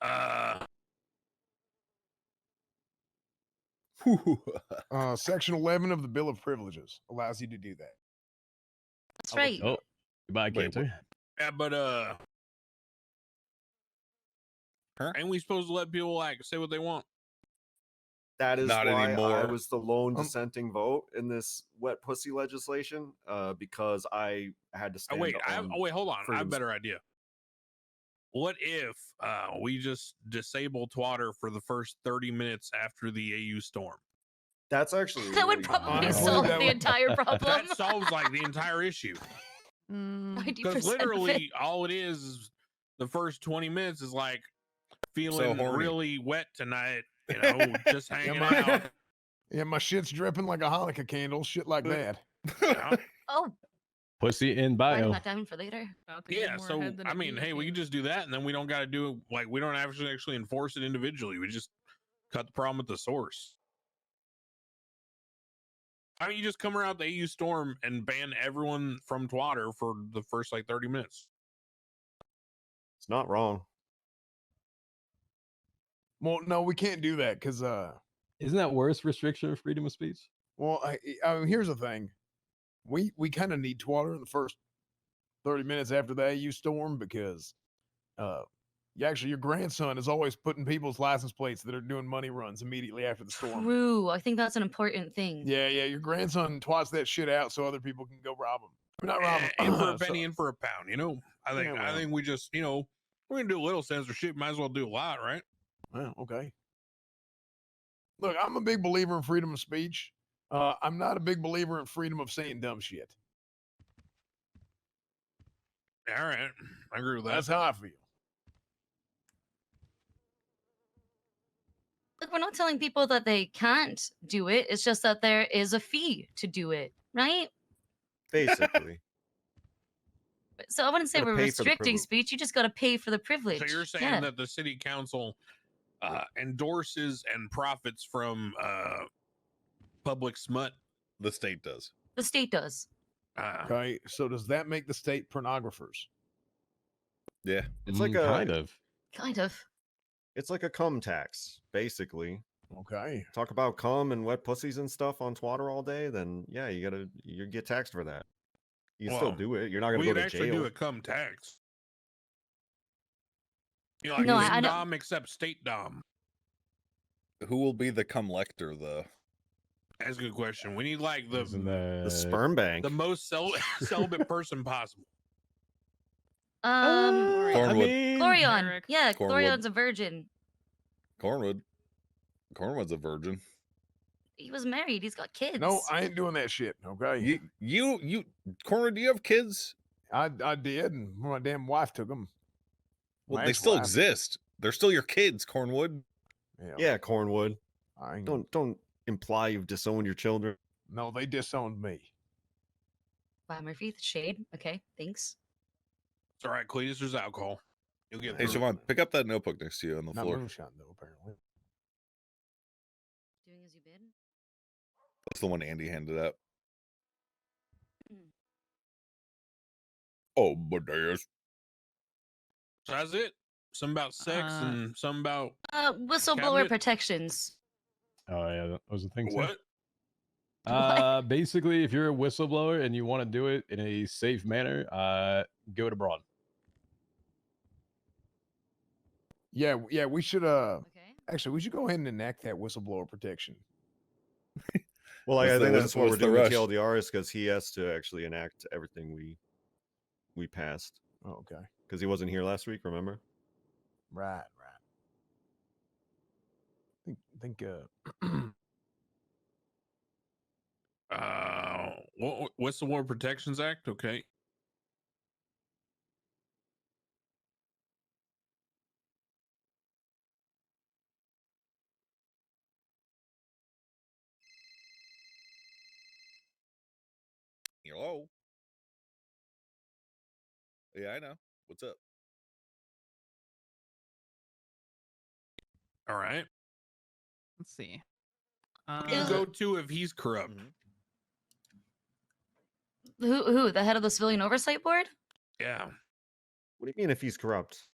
Uh, Uh, Section 11 of the Bill of Privileges allows you to do that. That's I'll look right. it up. Oh, goodbye, Wait, cancer. yeah, but uh, Huh? ain't we supposed to let people like say what they want? That is Not why I anymore. was the lone Um, dissenting vote in this wet pussy legislation, uh, because I had to Oh, stand. wait, I, um, on- oh, wait, hold on. I have a freedoms. better idea. What if uh, we just disable Twatter for the first 30 minutes after the AU storm? That's actually That would really- probably Honestly, solve that the would- entire problem. That solves like the entire issue. Because 90% of it. literally all it is is the first 20 minutes is like feeling horny. really wet tonight, you know, just hanging out. Yeah, my shit's dripping like a Hanukkah candle, shit like that. you know? Oh, Pussy in writing bio. that down for later. Yeah, so I mean, hey, we can just do that, and then we don't got to do it- like we don't actually actually enforce it individually. We just cut the problem at the source. I mean, you just come around the AU storm and ban everyone from Twitter for the first like thirty minutes. It's not wrong. Well, no, we can't do that because, uh, Isn't that worse restriction of freedom of speech? well, I, I I mean, here's the thing. We we kind of need Twitter in the first 30 minutes after the AU storm because, uh, you actually, your grandson is always putting people's license plates that are doing money runs immediately after the storm. True. I think that's an important thing. Yeah, yeah, your grandson twats that shit out so other people can go rob him. Not rob Eh, in for a him. penny, in for a pound. You know, I think uh, Yeah, I well. think we just you know we're gonna do a little censorship. Might as well do a lot, right? Well, okay. Look, I'm a big believer in freedom of speech. Uh, I'm not a big believer in freedom of saying dumb shit. All right, I agree with that. That's how I feel. Look, we're not telling people that they can't do it. It's just that there is a fee to do it, right? Basically, But- So I wouldn't say Gotta we're pay for the restricting privilege. speech. You just got to pay for the privilege. So you're saying yeah. that the city council uh, endorses and profits from uh, public smut? the state does. the state does. Uh, Okay. So does that make the state pornographers? Yeah. It's like Mm, a- kind of. Kind of. it's like a cum tax. Basically, Okay. talk about cum and wet pussies and stuff on Twitter all day. Then yeah, you gotta you get taxed for that. You can still Well, do it. You're not gonna we go could to actually jail. do a cum tax. You know, like No, no, I- I don't- dom except state dom. Who will be the cum lector though? That's a good question. We need like the Isn't that- the sperm bank. the most cel- celibate person possible. Um, I Cornwood. mean, Glorion. Eric. Yeah, Cornwood. Glorion's a virgin. Cornwood. Cornwood's a virgin. He was married. He's got kids. No, I ain't doing that shit. Okay. You you you Cornwood, do you have kids? I, I did, and my damn wife took them. Well, My they still ex-wife. exist. They're still your kids, Cornwood. Yeah. yeah, Cornwood. I ain't, Don't don't imply you've disowned your children. no, they disowned me. Wow, Murphy, the shade. Okay, thanks. It's all right, Cletus. There's alcohol. You'll get Hey through. it. Siobhan, pick up that notebook next to you on the Not floor. moonshine though, apparently. Doing as you bid. That's the one Andy handed out. Mm. Oh, Amadeus. So that's it. Some about sex Uh, and some about Uh, whistleblower Cabinet. protections. Oh yeah, that was the thing. so. what? What? Uh, basically, if you're a whistleblower and you want to do it in a safe manner, uh, go to broad. Yeah, w- yeah, we should uh Okay. actually we should go ahead and enact that whistleblower protection. Well, I, What's I the- think what's- that's what we're what's the doing with rush? TLDR is because he has to actually enact everything we we passed Oh, okay. because he wasn't here last week. Remember? Right, right. think think uh Uh, what, what's the War Protections Act? Okay. Hello. Yeah, I know. What's up? All right. Let's see. Um, You Uh, go to if he's corrupt. Mm-hmm. Who? Who? The head of the civilian oversight board? Yeah. What do you mean if he's corrupt?